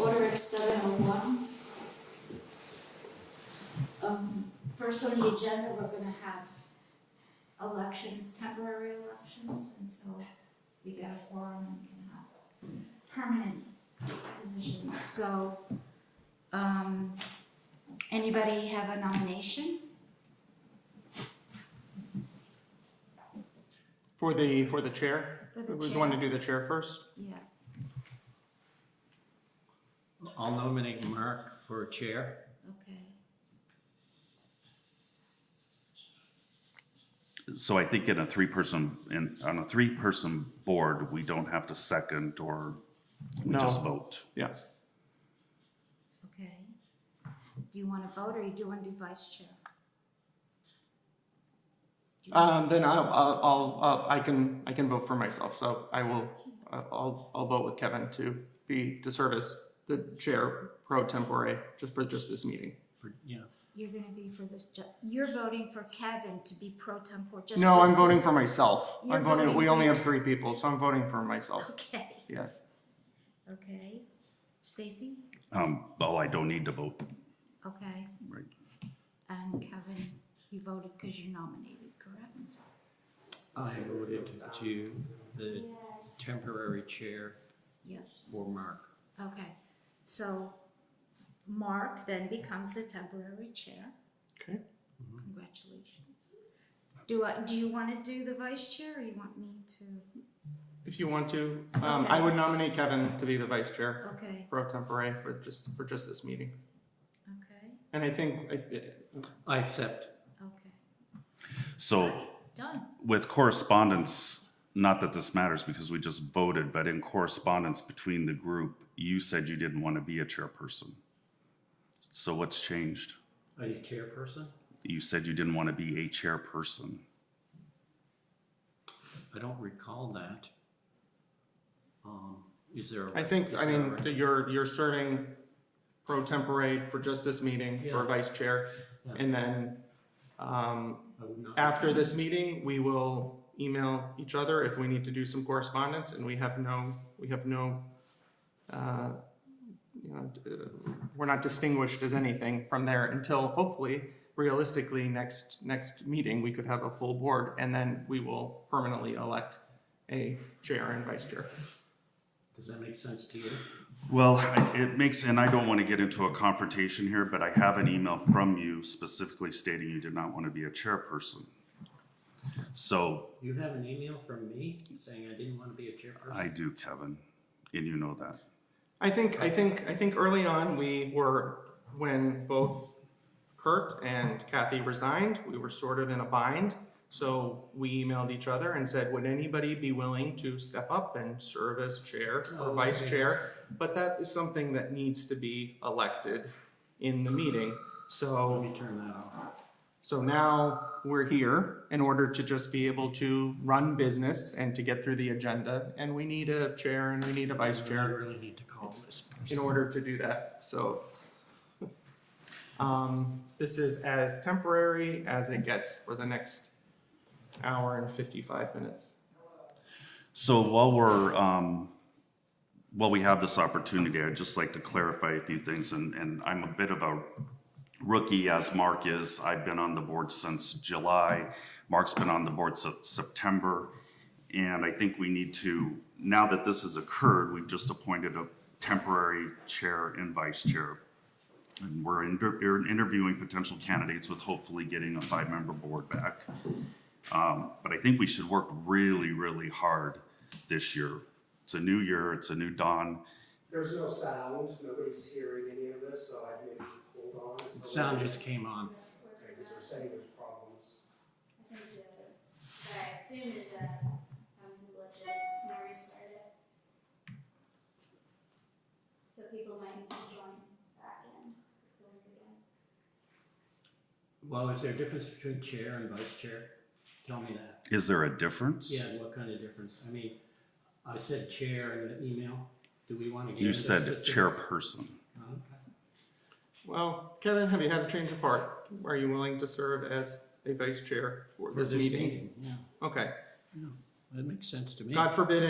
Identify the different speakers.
Speaker 1: order at seven oh one. Um, first on the agenda, we're gonna have elections, temporary elections until we get a forum and can have permanent positions, so, um, anybody have a nomination?
Speaker 2: For the, for the chair?
Speaker 1: For the
Speaker 2: Would you
Speaker 1: chair.
Speaker 2: want to do the chair first?
Speaker 1: Yeah,
Speaker 3: I'll nominate Mark for chair.
Speaker 1: okay.
Speaker 4: So I think in a three-person, in, on a three-person board, we don't have to second or we
Speaker 2: No.
Speaker 4: just vote.
Speaker 2: Yeah.
Speaker 1: Okay. Do you wanna vote or you do wanna do vice chair?
Speaker 2: Um, then I'll, I'll- I'll, uh, I can, I can vote for myself, so I will, uh, I'll, I'll vote with Kevin to be, to serve as the chair pro tempore, just for just this meeting.
Speaker 3: For, yeah.
Speaker 1: You're gonna be for this, ju- you're voting for Kevin to be pro tempore, just.
Speaker 2: No, I'm voting
Speaker 1: this.
Speaker 2: for myself.
Speaker 1: You're
Speaker 2: I'm voting,
Speaker 1: voting
Speaker 2: we
Speaker 1: for
Speaker 2: only have
Speaker 1: yourself.
Speaker 2: three people, so I'm voting for myself,
Speaker 1: Okay,
Speaker 2: yes.
Speaker 1: okay. Stacy?
Speaker 4: Um, oh, I don't need to vote,
Speaker 1: Okay,
Speaker 4: right?
Speaker 1: and Kevin, you voted because you nominated, correct?
Speaker 3: I voted to the temporary chair
Speaker 1: Yes,
Speaker 3: for Mark.
Speaker 1: okay. So Mark then becomes the temporary chair.
Speaker 2: Okay.
Speaker 1: Congratulations. Do I, do you want to do the vice chair or you want me to?
Speaker 2: If you want to, um, I
Speaker 1: Okay.
Speaker 2: would nominate Kevin to be the vice chair
Speaker 1: Okay,
Speaker 2: pro tempore for just, for just this meeting.
Speaker 1: okay,
Speaker 2: And I think, I-
Speaker 3: I accept.
Speaker 1: okay.
Speaker 4: So
Speaker 1: Done.
Speaker 4: with correspondence, not that this matters because we just voted, but in correspondence between the group, you said you didn't want to be a chairperson. So what's changed?
Speaker 3: Are you chairperson?
Speaker 4: You said you didn't want to be a chairperson.
Speaker 3: I don't recall that. Um, is there? a-
Speaker 2: I think,
Speaker 3: is
Speaker 2: I
Speaker 3: there a
Speaker 2: mean,
Speaker 3: rec-
Speaker 2: that you're, you're serving pro tempore for just this meeting for
Speaker 3: Yeah.
Speaker 2: vice chair.
Speaker 3: Yeah.
Speaker 2: And then, um,
Speaker 3: I would not-
Speaker 2: after this meeting, we will email each other if we need to do some correspondence and we have no, we have no, uh, you know, uh, we're not distinguished as anything from there until hopefully, realistically, next, next meeting, we could have a full board and then we will permanently elect a chair and vice chair.
Speaker 3: Does that make sense to you?
Speaker 4: Well, I- it makes, and I don't want to get into a confrontation here, but I have an email from you specifically stating you did not want to be a chairperson. So
Speaker 3: You have an email from me saying I didn't want to be a chairperson?
Speaker 4: I do, Kevin, and you know that.
Speaker 2: I think I think I think early on we were when both Kurt and Kathy resigned, we were sort of in a bind. So we emailed each other and said, would anybody be willing to step up and serve as chair or
Speaker 3: Oh,
Speaker 2: vice
Speaker 3: okay.
Speaker 2: chair? But that is something that needs to be elected in the meeting.
Speaker 3: Let
Speaker 2: So
Speaker 3: me turn that off.
Speaker 2: so now we're here in order to just be able to run business and to get through the agenda. And we need a chair and we need a vice
Speaker 3: I
Speaker 2: chair
Speaker 3: really need to call this
Speaker 2: in
Speaker 3: person.
Speaker 2: order to do that, so. Um, this is as temporary as it gets for the next hour and fifty-five minutes.
Speaker 4: So while we're, um, while we have this opportunity, I'd just like to clarify a few things, and, and I'm a bit of a rookie as Mark is. I've been on the board since July. Mark's been on the board since September. And I think we need to, now that this has occurred, we've just appointed a temporary chair and vice chair. And we're inter- we're interviewing potential candidates with hopefully getting a five-member board back. Um, but I think we should work really, really hard this year. It's a new year, it's a new dawn.
Speaker 5: There's no sound, nobody's hearing any of this, so I maybe hold on. until-
Speaker 3: Sound just came on.
Speaker 5: Okay, because they're saying there's problems.
Speaker 6: I think the, sorry, Zoom is, uh, having some glitches, when I restart it. So people might need to join back in, like, again.
Speaker 3: Well, is there a difference between chair and vice chair? Tell me that.
Speaker 4: Is there a difference?
Speaker 3: Yeah, what kind of difference? I mean, I said chair in the email. Do we want to get?
Speaker 4: You
Speaker 3: into
Speaker 4: said
Speaker 3: specific-
Speaker 4: chairperson.
Speaker 3: Okay.
Speaker 2: Well, Kevin, have you had a change of heart? Are you willing to serve as a vice chair for
Speaker 3: For
Speaker 2: this meeting?
Speaker 3: Yeah,
Speaker 2: Okay,
Speaker 3: that makes sense to me.
Speaker 2: God forbid